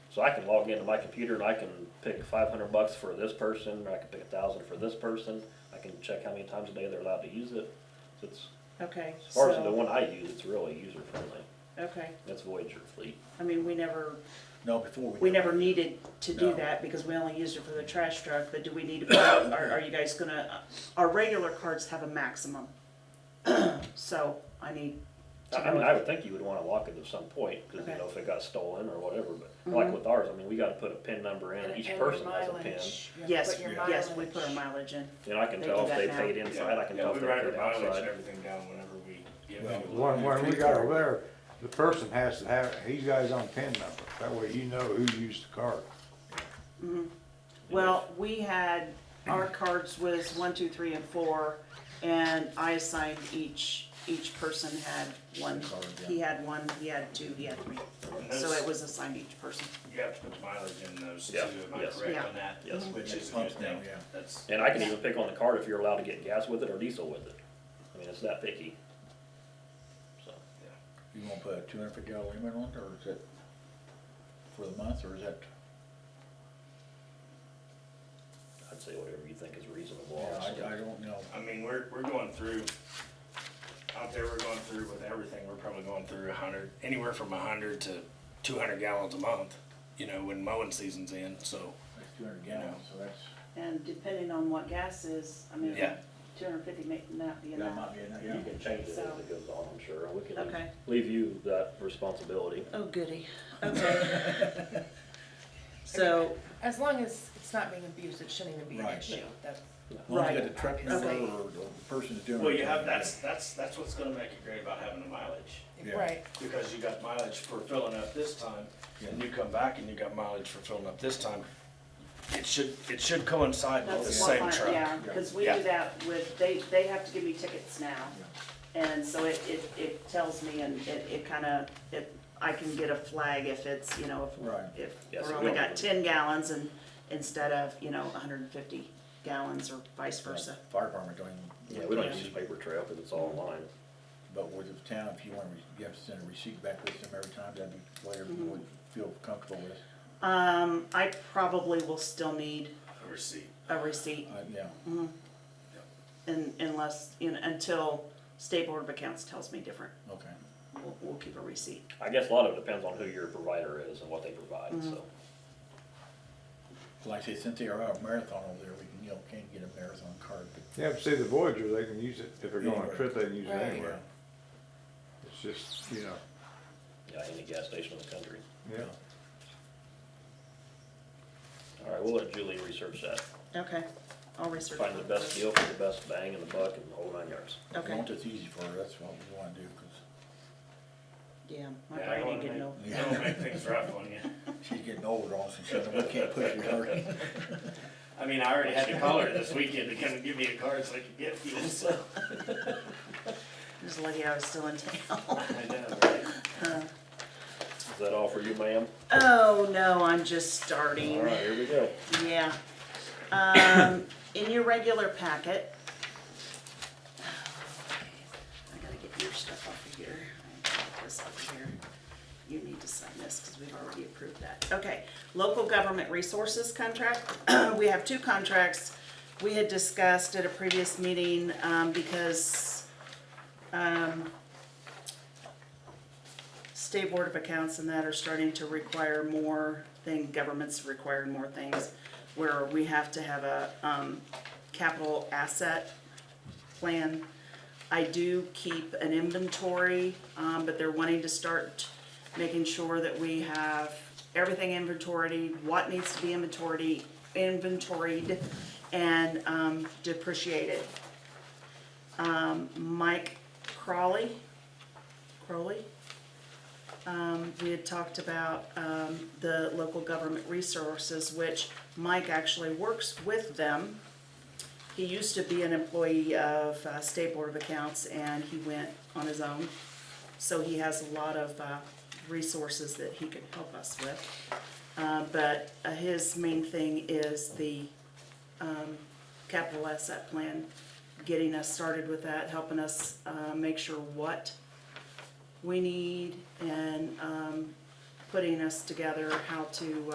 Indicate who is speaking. Speaker 1: So I can log into my computer and I can pick five hundred bucks for this person, or I can pick a thousand for this person. I can check how many times a day they're allowed to use it. So it's,
Speaker 2: Okay,
Speaker 1: as far as the
Speaker 2: so,
Speaker 1: one I use, it's really user friendly.
Speaker 2: okay,
Speaker 1: That's Voyager Fleet.
Speaker 2: I mean, we never,
Speaker 3: No, before
Speaker 2: we
Speaker 3: we. do it.
Speaker 2: never needed to do
Speaker 3: No.
Speaker 2: that because we only used it for the trash truck, but do we need to, put out- are, are you guys gonna, uh, our regular cards have a maximum. So I need
Speaker 1: I
Speaker 2: to
Speaker 1: I mean, I
Speaker 2: know,
Speaker 1: would think you would wanna lock it at some point, cause you
Speaker 2: Okay.
Speaker 1: know, if it got stolen or whatever, but like
Speaker 2: Mhm.
Speaker 1: with ours, I mean, we gotta put a pin number in, each person has a pin.
Speaker 2: yes,
Speaker 3: your
Speaker 2: yes, we put our mileage in.
Speaker 1: And I can
Speaker 2: They
Speaker 1: tell
Speaker 2: do
Speaker 1: if
Speaker 2: that
Speaker 1: they
Speaker 2: now.
Speaker 1: paid inside, I can
Speaker 4: Yeah,
Speaker 1: tell
Speaker 4: we
Speaker 1: if they
Speaker 4: write our
Speaker 1: paid
Speaker 4: mileage and
Speaker 1: outside.
Speaker 4: everything down whenever we get.
Speaker 3: Well,
Speaker 4: fuel.
Speaker 5: When, when we got aware, the person has to have, he's got his own PIN number, that way you know who used the card.
Speaker 2: Well, we had, our cards was one, two, three, and four, and I assigned each, each person had one.
Speaker 3: Card, yeah.
Speaker 2: He had one, he had two, he had three, so it was assigned each person.
Speaker 4: You have to put mileage in those two,
Speaker 1: Yeah,
Speaker 4: am I
Speaker 1: yes.
Speaker 4: correct
Speaker 2: Yeah.
Speaker 4: on that?
Speaker 1: Yes.
Speaker 4: Which is a
Speaker 3: Pumps
Speaker 4: good
Speaker 3: now,
Speaker 4: thing,
Speaker 3: yeah.
Speaker 4: that's,
Speaker 1: And I can even pick on the card if you're allowed to get gas with it or diesel with it. I mean, it's that picky. So,
Speaker 3: You gonna put a two hundred fifty dollar limit on it, or is it for the month, or is that?
Speaker 1: I'd say whatever you think is reasonable.
Speaker 3: Yeah, I,
Speaker 1: honestly.
Speaker 3: I don't know.
Speaker 4: I mean, we're, we're going through, out there, we're going through with everything, we're probably going through a hundred, anywhere from a hundred to two hundred gallons a month, you know, when mowing season's in, so.
Speaker 3: That's two hundred gallons, so that's,
Speaker 2: And depending on what gas is, I mean,
Speaker 4: Yeah.
Speaker 2: two hundred and fifty may not be
Speaker 3: that
Speaker 2: enough.
Speaker 3: might be enough,
Speaker 1: You
Speaker 3: yeah.
Speaker 1: can change it as
Speaker 2: So-
Speaker 1: it goes on, I'm sure. We can leave-
Speaker 2: Okay.
Speaker 1: leave you that responsibility.
Speaker 2: Oh, goody, okay. So,
Speaker 6: As long as it's not being abused, it shouldn't even be an
Speaker 3: Right.
Speaker 6: issue. That's,
Speaker 3: As long as you got
Speaker 2: Right.
Speaker 3: the truck number
Speaker 2: Okay.
Speaker 3: or the person that's doing it.
Speaker 4: Well, you have, that's, that's, that's what's gonna make it great about having a mileage.
Speaker 3: Yeah.
Speaker 6: right.
Speaker 4: because you got mileage for filling up this time, and you come back and you got mileage for filling up this time, it should, it should coincide with the
Speaker 2: that's what
Speaker 4: same
Speaker 2: my, yeah,
Speaker 4: truck.
Speaker 2: cause we
Speaker 4: Yeah.
Speaker 2: do that with, they, they have to give me tickets now. And so it, it, it tells me and it, it kinda, it, I can get a flag if it's, you know,
Speaker 3: Right.
Speaker 2: if,
Speaker 1: Yeah,
Speaker 2: if
Speaker 1: so
Speaker 2: we're
Speaker 1: we
Speaker 2: only
Speaker 1: don't-
Speaker 2: got ten gallons and, instead of, you know, hundred and fifty gallons or vice versa.
Speaker 3: Fire department don't even.
Speaker 1: Yeah, we don't use paper trail because it's all online.
Speaker 3: But with the town, if you want, you have to send a receipt back with them every time, that'd be whatever you would
Speaker 2: Mm-hmm.
Speaker 3: feel comfortable with,
Speaker 2: Um, I probably will still need
Speaker 4: A receipt.
Speaker 2: a receipt
Speaker 3: uh, yeah.
Speaker 2: un unless, you know, until State Board of Accounts tells me different.
Speaker 3: Okay.
Speaker 2: We'll, we'll keep a receipt.
Speaker 1: I guess a lot of it depends on who your provider is and what they provide, so.
Speaker 3: Like I say, since they are out of marathon over there, we can, you know, can't get a marathon card, but
Speaker 5: Yeah, but see, the Voyager, they can use it, if they're going on a
Speaker 3: Anywhere.
Speaker 5: trip, they can use it
Speaker 6: Right.
Speaker 5: anywhere. It's just, you know,
Speaker 1: Yeah, any gas station in the country.
Speaker 5: yeah.
Speaker 1: All right, we'll let Julie research that.
Speaker 2: Okay, I'll research.
Speaker 1: Find the best deal for the best bang in the buck and the whole nine yards.
Speaker 3: if you
Speaker 2: Okay,
Speaker 3: want this easy for her, that's what we wanna do, 'cause
Speaker 2: yeah, my
Speaker 4: Yeah,
Speaker 2: brain
Speaker 4: I don't
Speaker 2: ain't
Speaker 4: wanna
Speaker 2: getting
Speaker 4: make-
Speaker 2: old.
Speaker 4: I don't wanna make things rough on you.
Speaker 3: she's getting older also, so we can't push her.
Speaker 4: I mean, I already had to call her this weekend to come and give me a card so I could get fuel, so.
Speaker 2: I'm just lucky I was still in town.
Speaker 4: I know, right?
Speaker 1: Is that all for you, ma'am?
Speaker 2: Oh, no, I'm just starting.
Speaker 1: All right, here we go.
Speaker 2: Yeah. Um, in your regular packet. I gotta get your stuff off of here. I gotta get This over here. You need to sign this because we've already approved that. Okay, local government resources contract. We have two contracts. We had discussed at a previous meeting, um, because, um, state board of accounts and that are starting to require more thing, governments requiring more things, where we have to have a, um, capital asset plan. I do keep an inventory, um, but they're wanting to start making sure that we have everything inventoried, what needs to be inventoried, inventoried, and, um, depreciated. Um, Mike Crowley, Crowley? we had talked about um, the local government resources, which Mike actually works with them. He used to be an employee of uh, State Board of Accounts, and he went on his own. So he has a lot of uh, resources that he can help us with. Uh, But uh, his main thing is the um, capital asset plan, getting us started with that, helping us uh, make sure what we need and um, putting us together how to, uh,